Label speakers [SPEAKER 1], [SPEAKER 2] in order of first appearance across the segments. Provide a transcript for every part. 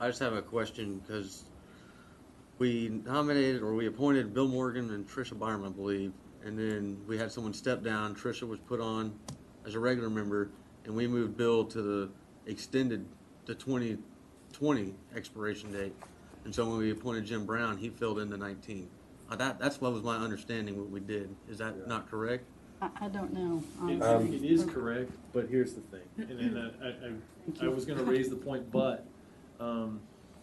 [SPEAKER 1] I just have a question, because we nominated, or we appointed Bill Morgan and Tricia Byram, I believe, and then we had someone step down, Tricia was put on as a regular member, and we moved Bill to the extended, the twenty twenty expiration date. And so when we appointed Jim Brown, he filled in the nineteen. Uh, that, that's what was my understanding, what we did, is that not correct?
[SPEAKER 2] I, I don't know.
[SPEAKER 3] It-
[SPEAKER 2] honestly.
[SPEAKER 3] It is correct, but here's the thing, and then I- I, I, I was gonna raise the point, but, um,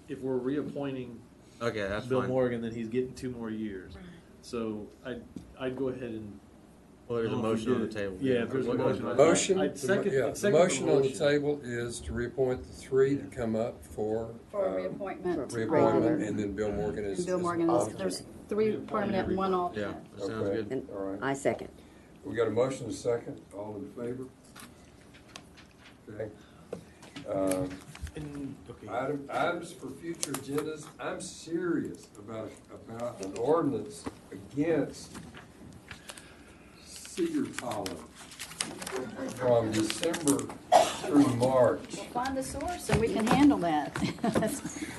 [SPEAKER 3] if we're reappointing
[SPEAKER 1] Okay, that's
[SPEAKER 3] Bill
[SPEAKER 1] fine.
[SPEAKER 3] Morgan, then he's getting two more years. So I, I'd go ahead and.
[SPEAKER 1] Well, there's a
[SPEAKER 3] I don't know if
[SPEAKER 1] motion
[SPEAKER 3] we
[SPEAKER 1] on the
[SPEAKER 3] did it.
[SPEAKER 1] table.
[SPEAKER 3] Yeah, if there's a
[SPEAKER 1] What-
[SPEAKER 3] motion, I-
[SPEAKER 4] Motion,
[SPEAKER 3] I'd second-
[SPEAKER 4] yeah,
[SPEAKER 3] I'd
[SPEAKER 4] the
[SPEAKER 3] second the
[SPEAKER 4] motion on the
[SPEAKER 3] motion.
[SPEAKER 4] table is to reappoint the three to come up for,
[SPEAKER 2] For
[SPEAKER 4] uh,
[SPEAKER 2] a reappointment.
[SPEAKER 4] reappointment,
[SPEAKER 2] regular.
[SPEAKER 4] and then Bill Morgan is.
[SPEAKER 2] And Bill
[SPEAKER 4] is
[SPEAKER 2] Morgan, is-
[SPEAKER 4] alternate.
[SPEAKER 2] there's three permanent, and one
[SPEAKER 1] Yeah,
[SPEAKER 2] alternate.
[SPEAKER 1] that sounds
[SPEAKER 4] Okay.
[SPEAKER 1] good.
[SPEAKER 5] And
[SPEAKER 4] All right.
[SPEAKER 5] I second.
[SPEAKER 4] We got a motion and a second, all in favor? Okay. Um, Item, items for future agendas, I'm serious about, about an ordinance against cedar pollen from December through March.
[SPEAKER 2] Find the source and we can handle that.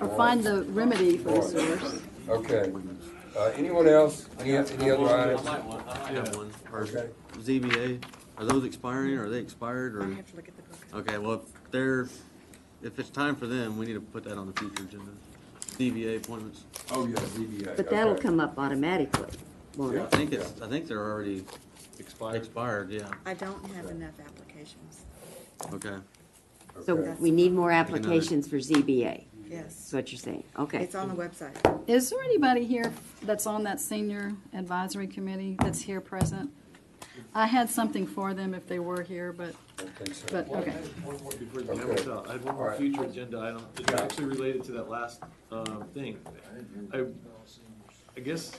[SPEAKER 2] Or find the remedy for the source.
[SPEAKER 4] Okay, uh, anyone else, any, any other items?
[SPEAKER 1] I have one. Or
[SPEAKER 4] Okay.
[SPEAKER 1] ZBA, are those expiring, or are they expired, or?
[SPEAKER 6] to look at the book.
[SPEAKER 1] Okay, well, if they're, if it's time for them, we need to put that on the future agenda. ZBA appointments.
[SPEAKER 4] Oh, yeah, ZBA.
[SPEAKER 5] But that'll
[SPEAKER 4] okay.
[SPEAKER 5] come up automatically, won't
[SPEAKER 1] I
[SPEAKER 5] it?
[SPEAKER 1] think it's, I think they're already
[SPEAKER 3] Expired.
[SPEAKER 1] expired, yeah,
[SPEAKER 6] I don't have enough applications.
[SPEAKER 1] okay.
[SPEAKER 5] So
[SPEAKER 4] Okay.
[SPEAKER 5] we need more
[SPEAKER 1] another-
[SPEAKER 5] applications for ZBA, is
[SPEAKER 6] Yes,
[SPEAKER 5] what you're saying. Okay.
[SPEAKER 6] it's on the website.
[SPEAKER 2] Is there anybody here that's on that senior advisory committee that's here present? I had something for them if they were here, but,
[SPEAKER 4] I think so.
[SPEAKER 2] but, okay.
[SPEAKER 3] One more before the camera
[SPEAKER 4] Okay.
[SPEAKER 3] fell. I have one
[SPEAKER 4] All
[SPEAKER 3] more
[SPEAKER 4] right.
[SPEAKER 3] future agenda item, it's
[SPEAKER 4] Yeah.
[SPEAKER 3] actually related to that last, um, thing. I, I guess,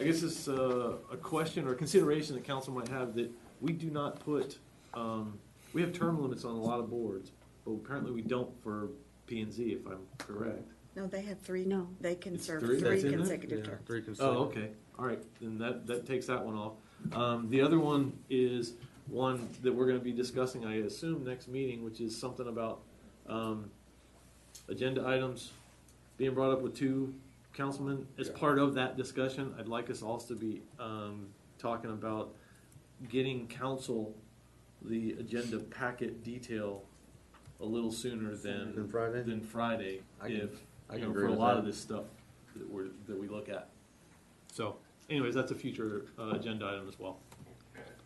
[SPEAKER 3] I guess it's, uh, a question or consideration the council might have that we do not put, um, we have term limits on a lot of boards, but apparently we don't for P and Z, if I'm correct.
[SPEAKER 6] No, they have three,
[SPEAKER 5] No.
[SPEAKER 6] they can serve
[SPEAKER 3] three?
[SPEAKER 6] three
[SPEAKER 3] That's in there?
[SPEAKER 6] consecutive
[SPEAKER 1] Yeah,
[SPEAKER 6] terms.
[SPEAKER 1] three consecutive.
[SPEAKER 3] Oh, okay, all right, then that, that takes that one off. Um, the other one is one that we're gonna be discussing, I assume, next meeting, which is something about, um, agenda items being brought up with two councilmen. As
[SPEAKER 4] Yeah.
[SPEAKER 3] part of that discussion, I'd like us also to be, um, talking about getting council the agenda packet detail a little sooner than.
[SPEAKER 1] Than Friday?
[SPEAKER 3] Than Friday,
[SPEAKER 1] I can-
[SPEAKER 3] if,
[SPEAKER 1] I can
[SPEAKER 3] you know,
[SPEAKER 1] agree
[SPEAKER 3] for a
[SPEAKER 1] with
[SPEAKER 3] lot
[SPEAKER 1] that.
[SPEAKER 3] of this stuff that we're, that we look at. So anyways, that's a future uh, agenda item as well.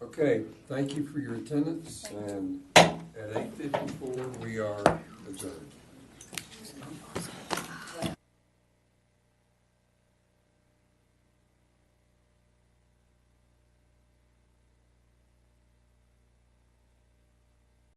[SPEAKER 4] Okay, thank you for your attendance, and at eight fifty-four, we are adjourned.